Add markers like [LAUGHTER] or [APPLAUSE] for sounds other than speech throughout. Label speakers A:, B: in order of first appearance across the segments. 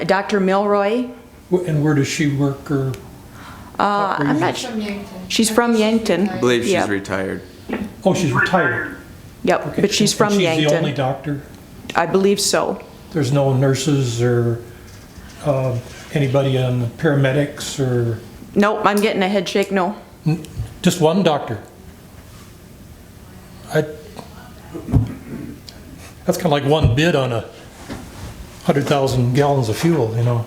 A: Dr. Milroy.
B: Wh- And where does she work or?
A: Uh, I'm not, su-
C: From Yankton.
A: she's from Yankton.
C: I
D: I believe she's
A: Yep.
D: retired.
B: Oh, she's retired.
A: Yep,
B: Okay.
A: but she's
B: And
A: from
B: She's the only
A: Yankton.
B: doctor?
A: I believe so.
B: There's no nurses or um, anybody on the paramedics or,
A: Nope, I'm getting a head shake, no.
B: n- just one doctor? I, that's kind of like one bid on a 100,000 gallons of fuel, you know?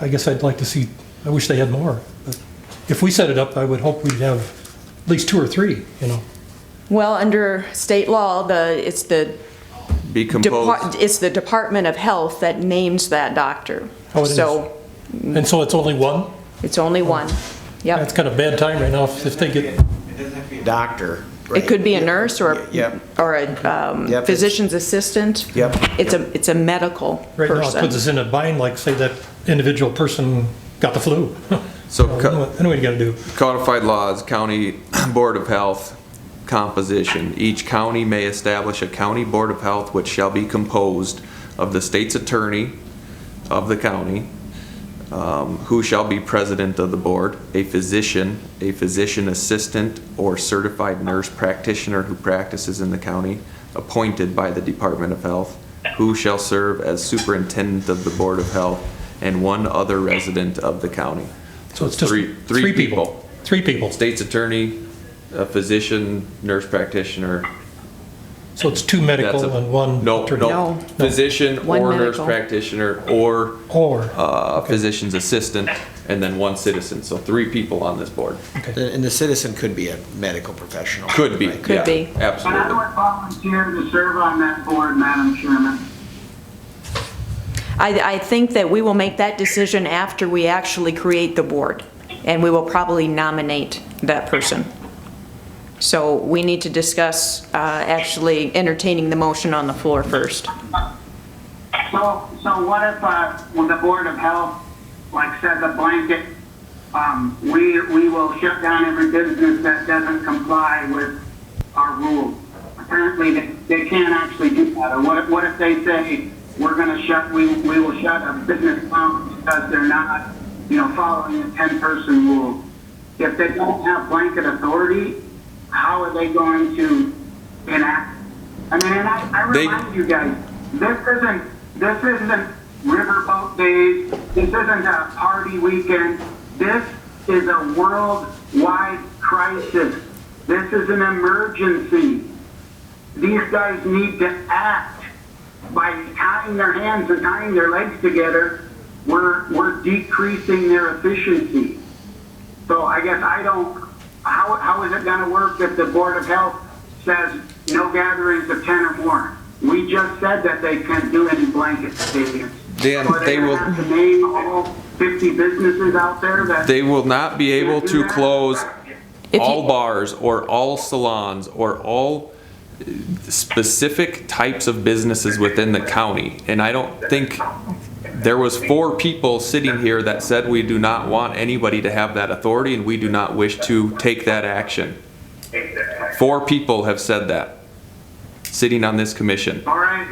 B: I guess I'd like to see, I wish they had more. but If we set it up, I would hope we'd have at least two or three, you know?
A: Well, under state law, the, it's the,
D: Be
A: depart-
D: composed.
A: it's the Department of Health that names that doctor.
B: Oh, it is.
A: So
B: And so it's only one?
A: it's only one.
B: That's
A: Yep.
B: kind of bad time right now if if they get,
E: doctor.
A: It could be a nurse or, a
E: Yep.
A: or a um,
E: Yep, it's-
A: physician's assistant.
E: Yep.
A: It's a, it's a medical
B: right now, it puts
A: person.
B: us in a bind, like say that individual person got the flu. [LAUGHS]
D: So
B: Then
D: co-
B: what- then what you gotta do?
D: codified laws, county [CLEARS THROAT] board of health composition. Each county may establish a county board of health which shall be composed of the state's attorney of the county, um, who shall be president of the board, a physician, a physician assistant, or certified nurse practitioner who practices in the county, appointed by the Department of Health, who shall serve as superintendent of the board of health, and one other resident of the county.
B: So it's just
D: Three- three
B: three people.
D: people.
B: Three people.
D: State's attorney, a physician, nurse practitioner.
B: So it's two
D: That's
B: medical
D: a-
B: and one.
D: No,
B: attorney.
D: no.
A: No.
D: Physician
A: One
D: or nurse
A: medical.
D: practitioner or
B: Or,
D: uh, physician's assistant, and then one citizen. So three people on this board.
E: And the citizen could be a medical professional.
D: Could be.
E: right?
A: Could
D: yeah,
A: be.
F: And I
D: Absolutely.
F: would volunteer to serve on that board, Madam Chairman.
A: I, I think that we will make that decision after we actually create the board, and we will probably nominate that person. So we need to discuss uh, actually entertaining the motion on the floor first.
F: So, so what if, uh, when the Board of Health, like said the blanket, um, we, we will shut down every business that doesn't comply with our rules? Apparently, they, they can't actually do that, or what if, what if they say, we're gonna shut, we, we will shut a business down because they're not, you know, following the ten-person rule? If they don't have blanket authority, how are they going to enact? I mean, and I, I
D: They-
F: remind you guys, this isn't, this isn't riverboat days, this isn't a party weekend, this is a worldwide crisis. This is an emergency. These guys need to act by tying their hands and tying their legs together. We're, we're decreasing their efficiency. So I guess I don't, how, how is it gonna work if the Board of Health says no gatherings of ten or more? We just said that they can't do any blanket statements.
D: Dan,
F: So are
D: they
F: gonna
D: will-
F: have to name all fifty businesses out there that.
D: They will not be able to close
A: If
D: all
A: you-
D: bars or all salons or all uh, specific types of businesses within the county. And I don't think, there was four people sitting here that said we do not want anybody to have that authority and we do not wish to take that action. Four people have said that, sitting on this commission.
F: All right,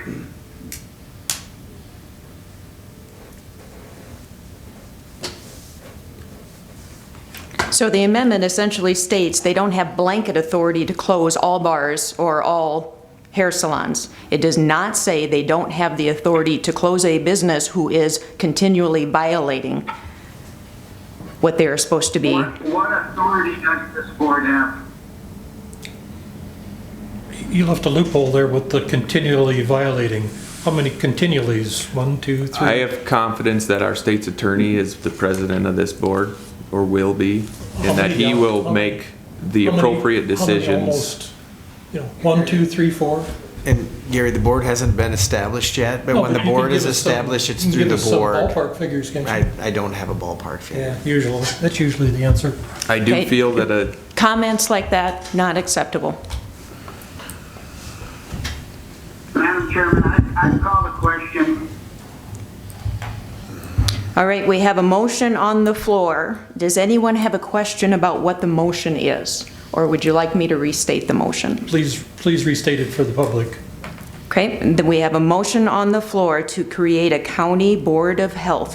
A: So the amendment essentially states they don't have blanket authority to close all bars or all hair salons. It does not say they don't have the authority to close a business who is continually violating what they are supposed to be.
F: what, what authority does this board have?
B: you left a loophole there with the continually violating. How many continuallys? One, two, three?
D: I have confidence that our state's attorney is the president of this board, or will be, and that he will make the
B: How many-
D: appropriate
B: how many
D: decisions.
B: almost? You know, one, two, three, four?
E: And Gary, the board hasn't been established yet, but
B: No,
E: when the
B: you can
E: board
B: give
E: is
B: us some-
E: established, it's
B: you can
E: through
B: give
E: the
B: us some
E: board.
B: Ballpark figures, can't you?
E: I, I don't have a ballpark figure.
B: Yeah, usually, that's usually the answer.
D: I do
A: Okay.
D: feel that a,
A: Comments like that, not acceptable.
F: Madam Chairman, I, I call the question.
A: All right, we have a motion on the floor. Does anyone have a question about what the motion is? Or would you like me to restate the motion?
B: Please, please restate it for the public.
A: Okay, and then we have a motion on the floor to create a county board of health